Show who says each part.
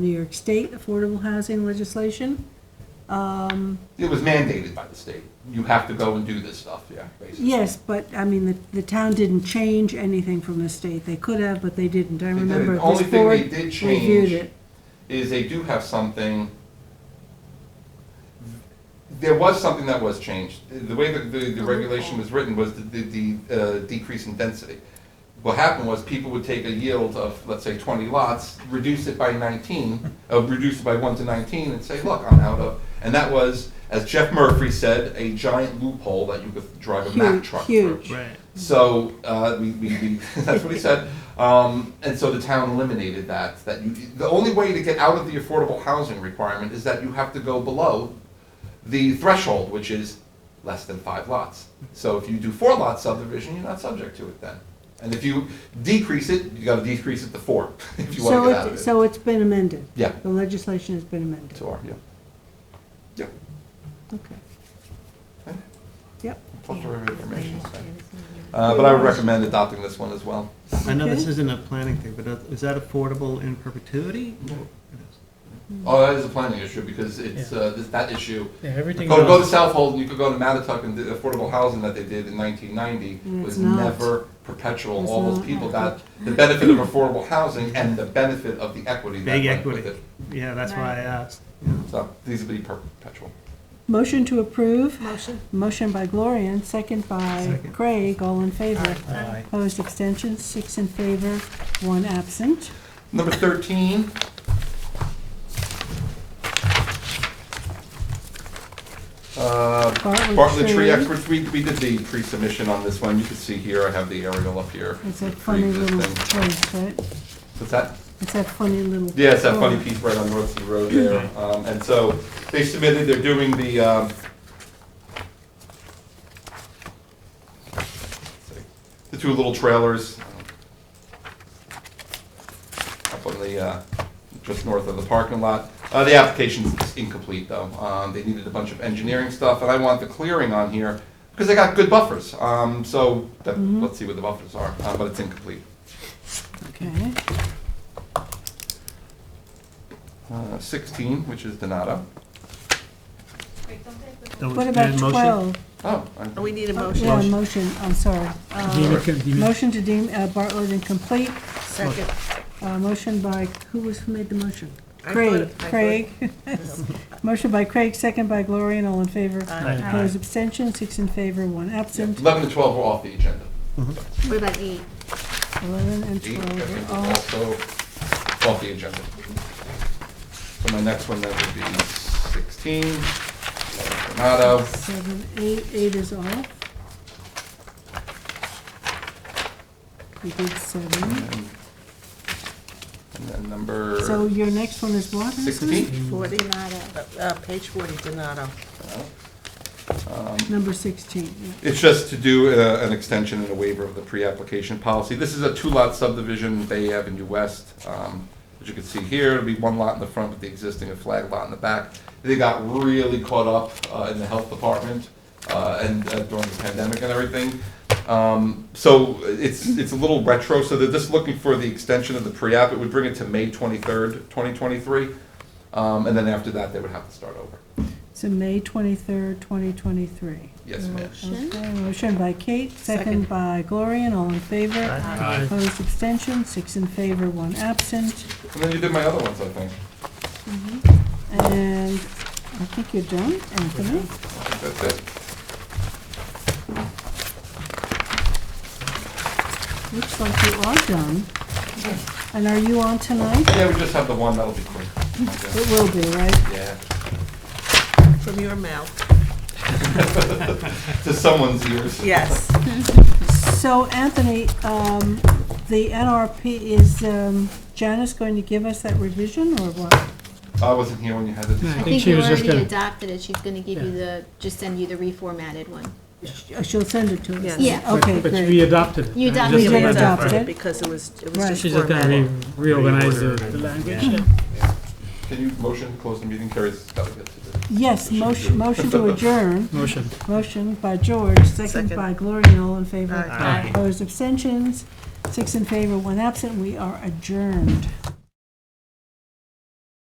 Speaker 1: New York State affordable housing legislation. Um,
Speaker 2: It was mandated by the state. You have to go and do this stuff, yeah, basically.
Speaker 1: Yes, but, I mean, the, the town didn't change anything from the state. They could have, but they didn't. I
Speaker 2: They did it.
Speaker 1: remember
Speaker 2: The only
Speaker 1: this
Speaker 2: thing they
Speaker 1: board
Speaker 2: did
Speaker 1: reviewed
Speaker 2: change
Speaker 1: it.
Speaker 2: is they do have something. There was something that was changed. The way that the, the regulation was written was the, the, the uh, decrease in density. What happened was people would take a yield of, let's say, twenty lots, reduce it by nineteen, uh, reduce it by one to nineteen and say, look, I'm out of. And that was, as Jeff Murphy said, a giant loophole that you could drive a Mack
Speaker 1: Huge,
Speaker 2: truck through.
Speaker 1: huge.
Speaker 3: Right.
Speaker 2: So uh, we, we, we that's what he said. Um, and so the town eliminated that. That you, the only way to get out of the affordable housing requirement is that you have to go below the threshold, which is less than five lots. So if you do four lot subdivision, you're not subject to it then. And if you decrease it, you got to decrease it to four if you want
Speaker 1: So
Speaker 2: to get out
Speaker 1: it,
Speaker 2: of it.
Speaker 1: so it's been amended.
Speaker 2: Yeah.
Speaker 1: The legislation has been amended.
Speaker 2: To our, yeah. Yeah.
Speaker 1: Okay.
Speaker 2: Okay.
Speaker 1: Yep.
Speaker 2: Plethora of information. so. Uh, but I would recommend adopting this one as well.
Speaker 3: I know this
Speaker 1: Okay.
Speaker 3: isn't a planning thing, but that- is that affordable in perpetuity?
Speaker 2: Oh, that is a planning issue because it's uh, this, that issue.
Speaker 4: Yeah, everything
Speaker 2: Go, go to
Speaker 4: else,
Speaker 2: South Hold, and you could go to Matatuck, and the affordable housing that they did in nineteen ninety
Speaker 1: Mm,
Speaker 2: was
Speaker 1: it's not.
Speaker 2: never perpetual.
Speaker 1: It's
Speaker 2: All those
Speaker 1: not.
Speaker 2: people got the benefit of affordable housing and the benefit of the equity that
Speaker 3: Big
Speaker 2: went with
Speaker 3: equity.
Speaker 2: it.
Speaker 3: Yeah, that's why I asked.
Speaker 2: So these would be perpetual.
Speaker 1: Motion to approve. Motion. Motion by Gloria and second by
Speaker 3: Second.
Speaker 1: Craig, all in favor.
Speaker 4: Aye.
Speaker 1: Opposed, abstentions, six in favor, one absent.
Speaker 2: Number thirteen. Uh,
Speaker 1: Bartlett
Speaker 2: Bartlett Tree
Speaker 1: Tree.
Speaker 2: Experts, we, we did the pre-submission on this one. You can see here, I have the aerial up here.
Speaker 1: It's a funny little
Speaker 2: Pre-existing.
Speaker 1: place, right?
Speaker 2: What's that?
Speaker 1: It's that funny little.
Speaker 2: Yeah, it's that funny
Speaker 1: corner.
Speaker 2: piece right on North Sea Road there. Um, And so they submitted, they're doing the, um, the two little trailers uh, up on the, uh, just north of the parking lot. Uh, The application's incomplete, though. Um, They needed a bunch of engineering stuff, and I want the clearing on here because they got good buffers. Um, So that- let's see what the buffers are, uh, but it's incomplete.
Speaker 1: Okay,
Speaker 2: Uh, 16, which is Donato.
Speaker 3: That was-
Speaker 1: what about
Speaker 3: and motion?
Speaker 1: twelve?
Speaker 2: Oh, I-
Speaker 5: We need a
Speaker 1: Oh,
Speaker 5: motion.
Speaker 1: Yeah, motion, I'm sorry. Uh, Motion to deem uh, Bartlett incomplete,
Speaker 5: Second.
Speaker 1: Uh, motion by, who was, who made the motion?
Speaker 5: I
Speaker 1: Craig,
Speaker 5: thought- I thought-
Speaker 1: Craig. Motion by Craig, second by Gloria, and all in favor.
Speaker 3: Aye.
Speaker 1: Opposed, abstention, six in favor, one absent.
Speaker 2: 11 and 12 were off the agenda.
Speaker 3: Uh-huh.
Speaker 6: What about E? eight?
Speaker 1: Eleven and
Speaker 2: 8, I think,
Speaker 1: twelve
Speaker 2: were
Speaker 1: are all
Speaker 2: also off the agenda. So my next one, that would be 16, Donato.
Speaker 1: Seven, eight, eight is off. We did seven.
Speaker 2: And and then number
Speaker 1: So your next one is what? Hanson?
Speaker 2: 16.
Speaker 5: Forty,
Speaker 6: Donato.
Speaker 5: uh, uh, page forty, Donato.
Speaker 1: Number sixteen, yeah.
Speaker 2: It's just to do uh, an extension and a waiver of the pre-application policy. This is a two-lot subdivision, Bay Avenue West. Um, As you can see here, it'll be one lot in the front with the existing, a flag lot in the back. They got really caught up uh, in the health department uh, and uh, during the pandemic and everything. Um, So it's, it's a little retro, so they're just looking for the extension of the pre-app. It would bring it to May 23rd, 2023. Um, And then after that, they would have to start over.
Speaker 1: So May twenty-third, twenty twenty-three.
Speaker 2: Yes, ma'am.
Speaker 1: Okay, motion by Kate, second
Speaker 5: Second.
Speaker 1: by Gloria, and all in favor.
Speaker 3: Aye.
Speaker 1: Opposed, abstention, six in favor, one absent.
Speaker 2: And then you did my other ones, I think.
Speaker 1: Mm-hmm. And I think you're done, Anthony.
Speaker 2: I think That's it.
Speaker 1: Looks like you are done. And are you on tonight?
Speaker 2: Yeah, we just have the one, that'll be quick.
Speaker 1: It will be, right?
Speaker 2: Yeah,
Speaker 5: From your mouth.
Speaker 2: to someone's ears.
Speaker 5: Yes.
Speaker 1: So Anthony, um, the NRP, is um, Janice going to give us that revision or what?
Speaker 2: I wasn't here when you had the
Speaker 6: I
Speaker 2: discussion.
Speaker 6: think
Speaker 4: she
Speaker 6: you
Speaker 4: was just
Speaker 6: already
Speaker 4: gonna-
Speaker 6: adopted it, she's gonna give you
Speaker 4: Yeah.
Speaker 6: the, just send you the reformatted one.
Speaker 1: Sh- She'll send it to us?
Speaker 5: Yes.
Speaker 6: Yeah.
Speaker 1: Okay,
Speaker 4: but we
Speaker 1: great.
Speaker 4: adopted it.
Speaker 6: You
Speaker 4: right?
Speaker 6: adopted
Speaker 4: Just
Speaker 1: it. We
Speaker 4: about that.
Speaker 1: adopted it.
Speaker 5: uh, Because it was, it
Speaker 1: Right.
Speaker 5: was
Speaker 4: She's
Speaker 5: just
Speaker 4: just gonna re-
Speaker 5: formatted.
Speaker 4: reorganize the the language.
Speaker 2: Can you motion to close the meeting, Carrie's gotta get to the.
Speaker 1: Yes, motion, motion to adjourn.
Speaker 4: Motion.
Speaker 1: Motion by George, second
Speaker 5: Second.
Speaker 1: by Gloria, all in favor.
Speaker 5: Aye.
Speaker 4: Aye.
Speaker 1: Opposed, abstentions, six in favor, one absent, we are adjourned.